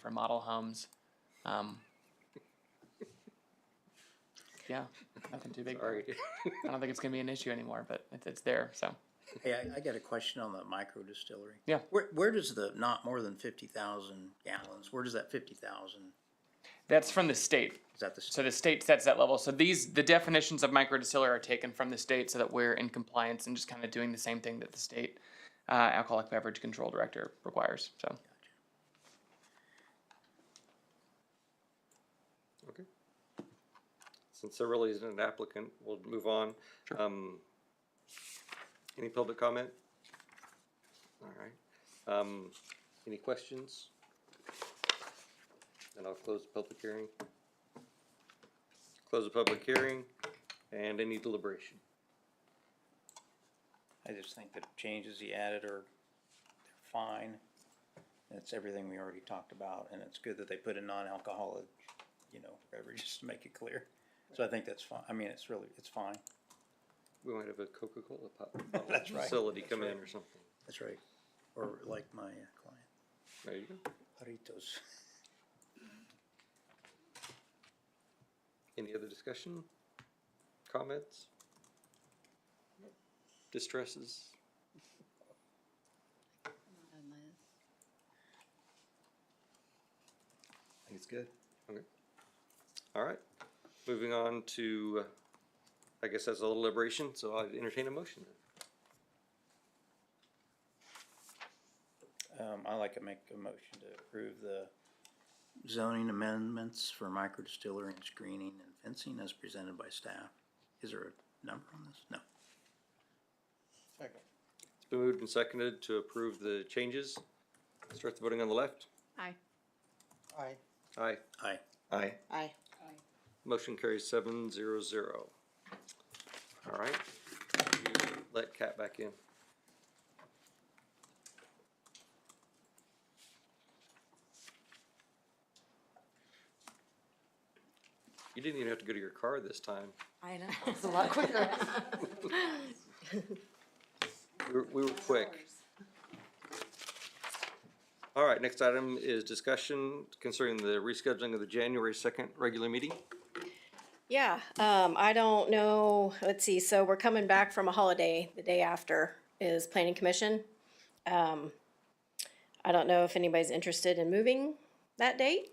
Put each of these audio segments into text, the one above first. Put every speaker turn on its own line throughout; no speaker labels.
for model homes. Um, yeah, nothing too big.
Sorry.
I don't think it's gonna be an issue anymore, but it's, it's there, so.
Hey, I, I got a question on the micro distillery.
Yeah.
Where, where does the not more than fifty thousand gallons, where does that fifty thousand,
That's from the state.
is that the, s-
So the state sets that level. So these, the definitions of micro distiller are taken from the state so that we're in compliance and just kind of doing the same thing that the state uh, alcoholic beverage control director requires, so.
Okay. Since there really isn't an applicant, we'll move on. Um, any public comment? All right. Um, any questions? Then I'll close the public hearing. Close the public hearing and any deliberation.
I just think that changes he added are they're fine. It's everything we already talked about, and it's good that they put in non-alcoholic, you know, beverage, just to make it clear. So I think that's fine, I mean, it's really, it's fine,
We might have a Coca-Cola pop- bottle
That's right,
facility
that's
come in
right.
or something.
that's right, or like my uh, client,
There you go.
Haritos.
Any other discussion? Comments? Distresses? I think it's good. Okay. All right. Moving on to, uh, I guess that's a little liberation, so I entertain a motion.
Um, I like to make a motion to approve the zoning amendments for micro distillery and screening and fencing as presented by staff. Is there a number on this? No.
It's been moved and seconded to approve the changes. Start the voting on the left.
Aye.
Aye.
Aye.
Aye.
Aye.
Aye.
Motion carries seven zero zero. All right. Let Kat back in. You didn't even have to go to your car this time.
I know, it's a lot quicker.
We were, we were quick. All right, next item is discussion concerning the rescheduling of the January second regular meeting.
Yeah, um, I don't know, let's see, so we're coming back from a holiday, the day after is planning commission. Um, I don't know if anybody's interested in moving that date,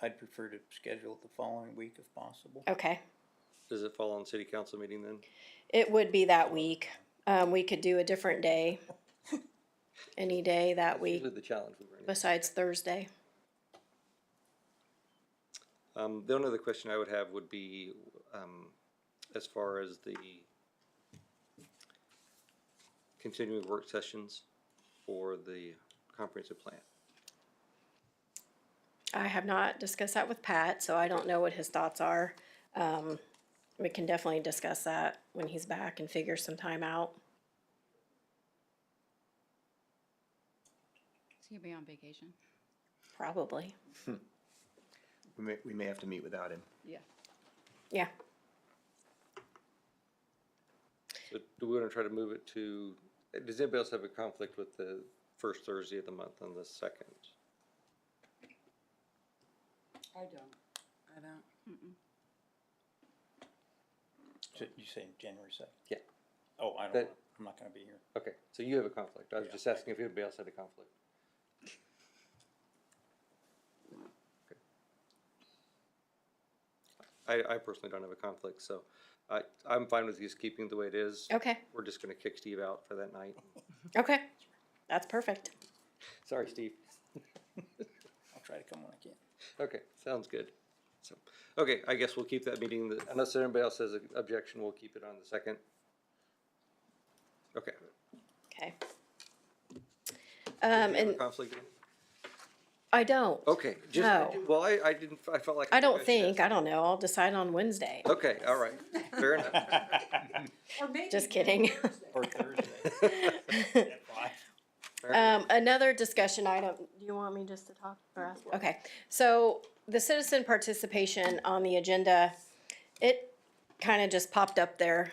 I'd prefer to schedule it the following week if possible.
okay.
Does it fall on city council meeting then?
It would be that week, um, we could do a different day. Any day that week
Usually the challenge we run into.
besides Thursday.
Um, the only other question I would have would be, um, as far as the continuing work sessions for the comprehensive plan.
I have not discussed that with Pat, so I don't know what his thoughts are. Um, we can definitely discuss that when he's back and figure some time out.
Is he gonna be on vacation?
Probably.
Hmm. We may, we may have to meet without him.
Yeah.
Yeah,
So do we wanna try to move it to, does anybody else have a conflict with the first Thursday of the month on the second?
I don't. I don't.
So You say January seventh?
Yeah.
Oh, I don't,
That-
know. I'm not gonna be here.
Okay, so you have a conflict. I was
Yeah.
just asking if anybody else had a conflict. Okay. I, I personally don't have a conflict, so I, I'm fine with just keeping it the way it is.
okay,
We're just gonna kick Steve out for that night.
okay. That's perfect.
Sorry, Steve.
I'll try to come when I can.
Okay, sounds good. So, okay, I guess we'll keep that meeting, the- unless anybody else has an objection, we'll keep it on the second. Okay.
Okay. Um,
Do you have a
and
Conflict?
I don't,
Oh,
Okay, just,
No.
well, I, I didn't, I felt like.
I don't
should ask
think, I don't know, I'll decide on Wednesday.
Okay, all right, fair enough.
Or maybe
Just kidding.
Or Thursday at five.
Fair enough.
Um, another discussion item, do you want me just to talk or ask? Okay, so the citizen participation on the agenda, it kind of just popped up there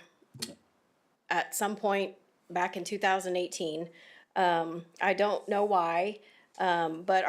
at some point back in two thousand eighteen. Um, I don't know why, um, but